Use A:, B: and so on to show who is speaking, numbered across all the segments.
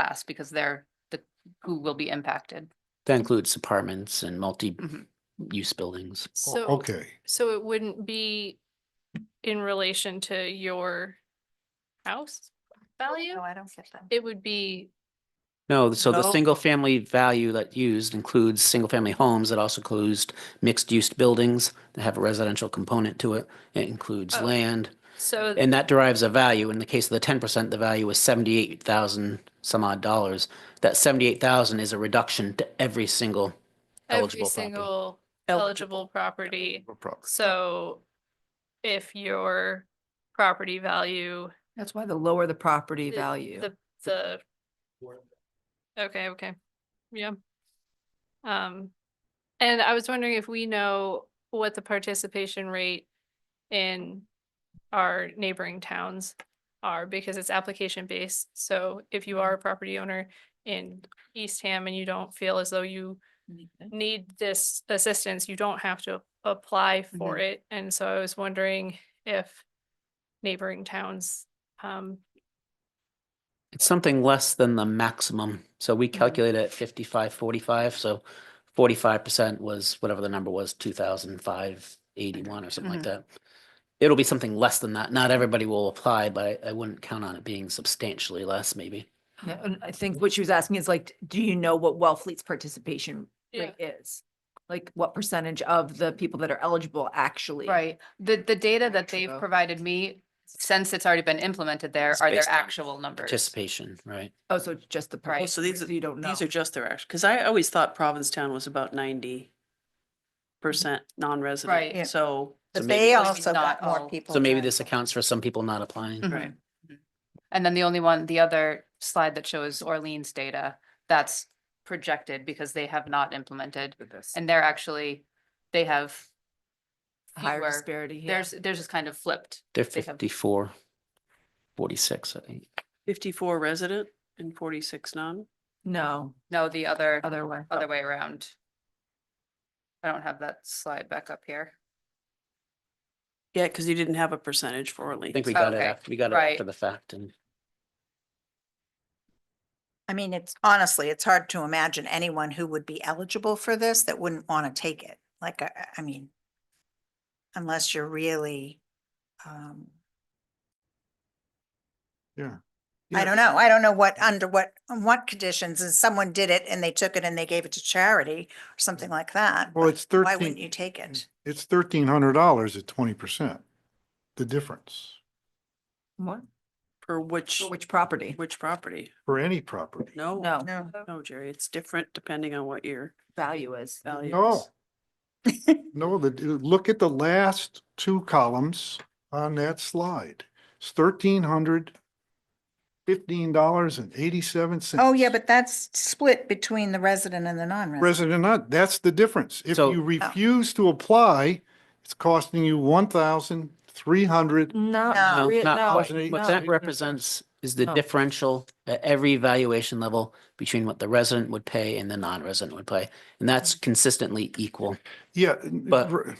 A: class because they're the, who will be impacted.
B: That includes apartments and
A: Mhm.
B: multi-use buildings.
C: O-
D: So,
C: Okay,
D: so it wouldn't be in relation to your house value?
A: I don't get that.
D: It would be,
B: No, so the
A: No.
B: single-family value that used includes single-family homes. It also includes mixed-use buildings that have a residential component to it. It includes
D: Oh.
B: land,
D: so,
B: and that derives a value. In the case of the ten percent, the value was seventy-eight thousand some odd dollars. That seventy-eight thousand is a reduction to every single
D: every
B: eligible property.
D: single eligible property.
C: no problem.
D: So if your property value,
E: That's why the lower the property
D: The-
E: value.
D: the, the, okay, okay, yeah. Um, and I was wondering if we know what the participation rate in our neighboring towns are, because it's application based. So if you are a property owner in Eastham and you don't feel as though you need this assistance, you don't have to apply for it. And so I was wondering if neighboring towns, um,
B: It's something less than the maximum. So
A: Mm-hmm.
B: we calculate it fifty-five, forty-five, so forty-five percent was whatever the number was, two thousand five eighty-one or something like
A: Mhm.
B: that. It'll be something less than that. Not everybody will apply, but I, I wouldn't count on it being substantially less, maybe.
E: Yeah, And I think what she was asking is like, do you know what Wellfleet's participation
D: Yeah.
E: rate is? Like what percentage of the people that are eligible actually?
A: Right, the, the data that they've
E: Actual.
A: provided me, since it's already been implemented there,
B: It's
A: are their
F: based on
A: actual numbers.
B: Participation, right?
E: Oh, so it's just the
A: Right.
E: price.
F: So these are-
E: You don't know.
F: These are just their actual, because I always thought Provincetown was about ninety percent non-resident.
A: Right.
G: Yeah.
F: So,
B: So
G: But
B: maybe-
G: they
A: Like,
G: also
A: not
G: got more
A: all-
G: people.
B: So maybe
G: trying
B: this
G: to-
B: accounts for some people not applying.
E: Mm-hmm.
A: Mhm.
F: right,
A: And then the only one, the other slide that shows Orleans data, that's projected because they have not implemented. And they're actually, they have,
E: Higher
A: fewer.
E: disparity. yeah.
A: theirs, theirs is kind of flipped.
B: They're
A: They have-
B: fifty-four, forty-six, I think.
F: fifty-four resident and forty-six non.
E: No,
A: No, the other,
E: other oh. way.
A: other way around. I don't have that slide back up here.
F: Yeah, because you didn't have a percentage for
B: I
F: Orleans.
B: think we got it
A: Oh, Okay,
B: after, we got it
A: right.
B: after the fact and.
G: I mean, it's honestly, it's hard to imagine anyone who would be eligible for this that wouldn't want to take it. Like, I, I- I mean, unless you're really, um,
C: Yeah.
G: I
C: Yeah.
G: don't know. I don't know what, under what, on what conditions, and someone did it and they took it and they gave it to charity or something like that.
C: Well,
G: but
C: it's
G: Why wouldn't you
C: thirteen,
G: take it?
C: it's thirteen hundred dollars at twenty percent, the difference
E: What?
F: For which,
E: For Which property?
F: which property?
C: for any property.
F: No.
E: No,
G: No.
F: No, Jerry, it's different depending on what your
E: value is.
F: value
C: No.
F: is.
C: No, the, look at the last two columns on that slide. It's thirteen hundred fifteen dollars and eighty-seven cents.
G: Oh, yeah, but that's split between the resident and the non-resident.
C: Resident not, that's the difference. If
B: So-
C: you refuse to apply, it's costing you one thousand three hundred.
E: No.
G: No,
B: No,
E: re-
B: not
E: no,
B: quite. What
E: no.
B: that represents is the
E: No.
B: differential at every valuation level between what the resident would pay and the non-resident would pay. And that's
E: Mm-hmm.
B: consistently equal.
C: Yeah.
B: But-
C: r-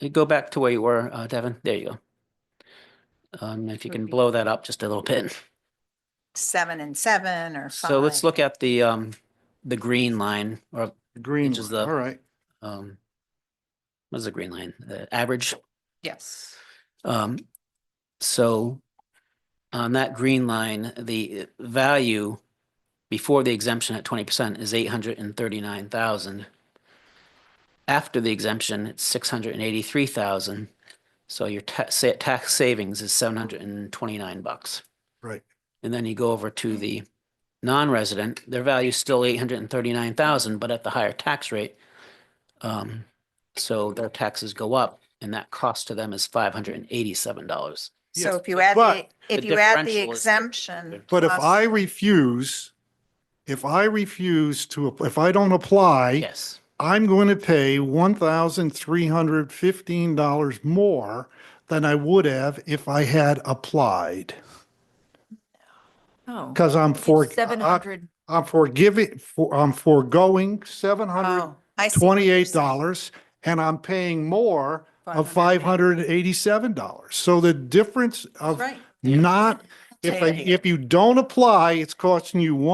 B: You Go back to where you were, uh, Devin. There you go. Um, if you can blow that up just a little bit.
G: seven and seven or five.
B: So let's look at the, um, the green line or,
C: Green,
B: Which is
C: line,
B: the-
C: all right.
B: um, what is the green line? The average?
A: Yes.
B: Um, so on that green line, the value before the exemption at twenty percent is eight hundred and thirty-nine thousand. After the exemption, it's six hundred and eighty-three thousand. So your ta- sa- tax savings is seven hundred and twenty-nine bucks.
C: Right.
B: And then you go over to the non-resident, their value is still eight hundred and thirty-nine thousand, but at the higher tax rate. Um, so their taxes go up and that cost to them is five hundred and eighty-seven dollars.
C: Yes,
G: So if you add, the
C: but
G: if
B: the
G: you add the
B: differential is-
G: exemption.
C: But if
G: plus-
C: I refuse, if I refuse to, app- if I don't apply,
B: Yes.
C: I'm going to pay one thousand three hundred fifteen dollars more than I would have if I had applied.
E: No.
C: Because I'm
B: uh,
C: for,
E: Seven
C: I-
E: hundred.
C: I'm forgiving, for- I'm foregoing seven hundred
G: Oh, I see what you're
C: twenty-eight
G: saying.
C: dollars and I'm paying more of five
G: 500.
C: hundred and eighty-seven dollars. So the difference of
G: Right.
C: not, if, I-
G: Taking it.
C: if you don't apply, it's costing you one.